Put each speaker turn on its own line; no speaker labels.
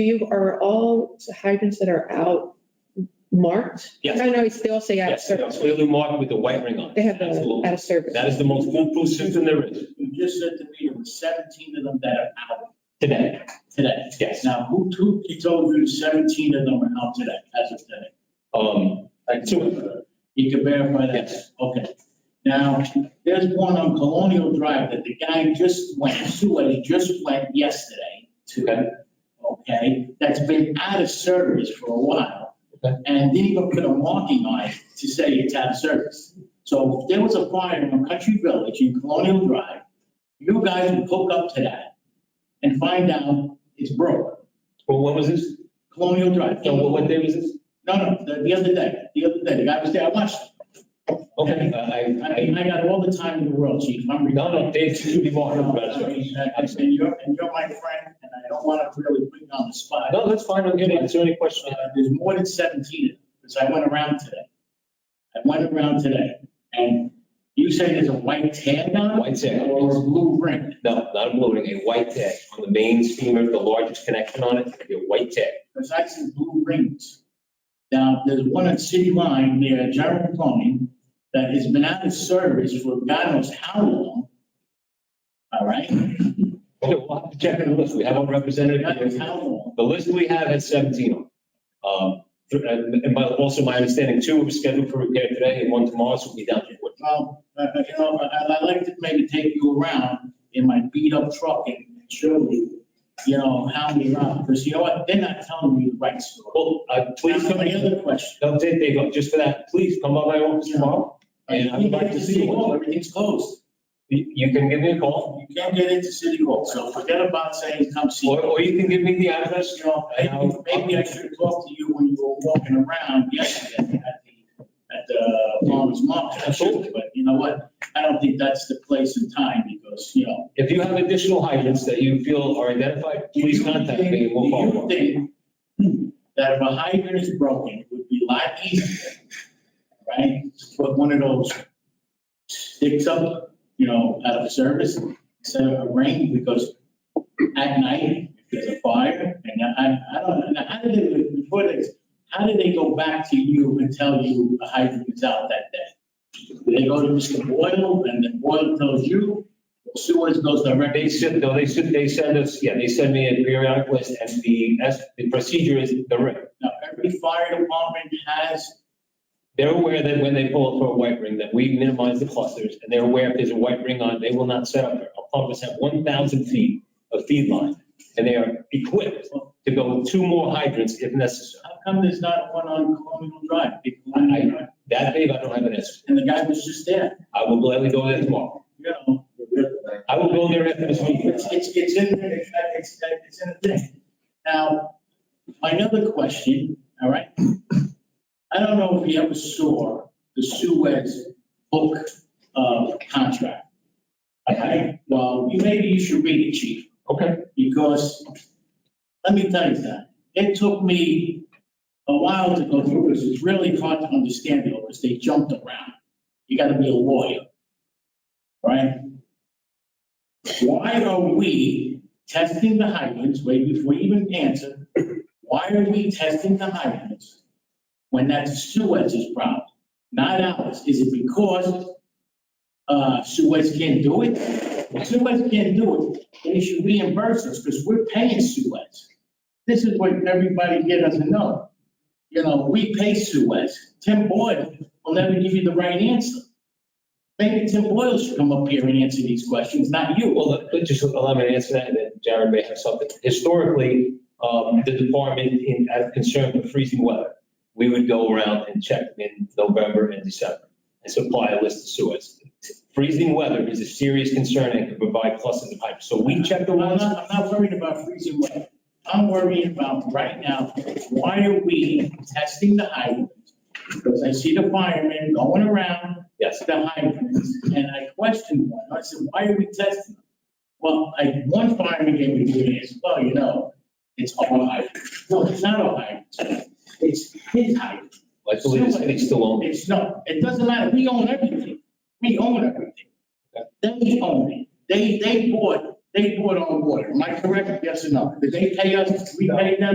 you, are all hydrants that are out marked?
Yes.
No, no, it's- they all say out of
Yes, it's
service.
clearly marked with the white ring on it.
They have the out
Absolutely.
of service.
That is the most foolproof system there is
You just said to me there were seventeen of them that are out
today.
today.
Yes.
Now, who, who, he told you seventeen of them are out today, as of today?
Um, like two,
You can verify that?
Yes.
Okay. Now, there's one on Colonial Drive that the guy just went, somebody just went yesterday
Okay.
to, okay? That's been out of service for a while.
Okay.
And didn't even put a marking on it to say it's out of service. So if there was a fire in a country village in Colonial Drive, you guys would hook up to that and find out it's broke.
well, when was this?
Colonial Drive.
So what, what day was this?
No, no, the, the other day, the other day, the guy was there, I watched it.
Okay, Uh, I,
I
I,
mean, I got all the time in the world, chief. I'm.
no, no, Dave, you be more.
I mean, I- I said, you're, and you're my friend, and I don't want to really put you on the spot.
No, that's fine, I'm getting, is there any question?
Uh, There's more than seventeen, because I went around today. I went around today, and you say there's a white tag on it?
White tag.
Or a blue ring?
No, not a blue ring, a white tag on the main streamer, the largest connection on it, it'd be a white tag.
Because I see blue rings. Now, there's one at City Line near General Plumbing that has been out of service for God knows how long. All right?
Okay, we'll have to check the list, we have our representative
God knows
here.
how long.
The list we have has seventeen on. it. Um, th- and and by, also my understanding, two were scheduled for repair today and one tomorrow, so we'll be down to fourteen.
Well, uh, uh, you know, I- I'd like to maybe take you around in my beat up truck and show you, you know, how many are, because you know what, they're not telling me the right story.
Well, uh, please
Now,
come
My
in.
other question.
No, Dave, Dave, look, just for that, please come by my office tomorrow, and I would like to see
Well,
you.
Everything's closed.
You you can give me a call,
You can't get into City Hall, so forget about saying come see.
or,
me."
or you can give me the address.
You know, maybe, maybe I should talk to you when you were walking around yesterday at the, at the farmer's market. I should, But you know what, I don't think that's the place and time, because, you know,
If you have additional hydrants that you feel are identified,
Do
please
you
contact
think-
me, and we'll follow up.
Do you think that if a hydrant is broken, it would be a lot easier, right? to Put one of those sticks up, you know, out of service, instead of a ring, because at night, if there's a fire, and I, I don't, know, how did they, before this, how did they go back to you and tell you a hydrant is out that day? They go to Mr. Boyle, and then Boyle tells you, Sewers goes directly.
They send, no, they send, they send us, yeah, they send me a periodic list, and the, that's, the procedure is the ring.
Now, every fire department has,
They're aware that when they pull up for a white ring, that we minimize the clusters, and they're aware if there's a white ring on, they will not set up there. Our pumps have one thousand feet of feed line, and they are equipped to go with two more hydrants if necessary.
how come there's not one on Colonial Drive? Big
I-
Colonial Drive?
That, Dave, I don't have an answer.
And the guy was just there,
I will gladly go there tomorrow.
you know?
I will go there after this meeting.
It's, it's, it's in, there, it's, it's, it's in the thing. Now, my other question, all right? I don't know if you ever saw the Suez book, uh, contract. All right, well, you- maybe you should read it, chief.
Okay.
because, let me tell you that, it took me a while to go through this, it's really hard to understand it, because they jumped around. You gotta be a lawyer, right? Why are we testing the hydrants, wait before you even answer, why are we testing the hydrants when that's Suez's problem, not ours? Is it because, uh, Suez can't do it? If Suez can't do it, they should reimburse us because we're paying Suez. This is what everybody here doesn't know. You know, we pay Suez. Tim Boyle will never give you the right answer. Maybe Tim Boyle should come up here and answer these questions, not you.
Well, let- let- just allow me to answer that, and then Jared may have something. Historically, um, the department in, out of concern for freezing weather, we would go around and check in November and December and supply a list of sewers. Freezing weather is a serious concern and could provide clusters of hydrant. So we check the
I'm
ones,
not, I'm not worried about freezing weather. I'm worrying about right now, why are we testing the hydrants? Because I see the firemen going around
yes.
the hydrants, and I questioned one, I said, why are we testing them? Well, I, one fireman gave me the answer, well, you know, it's our hydrant, no, it's not our hydrant, it's his hydrant.
I believe the city's still on.
It's no, it doesn't matter, we own everything, we own everything. They own it, they, they bought, they bought our water, am I correct, yes or no? Did they pay us, we paid them?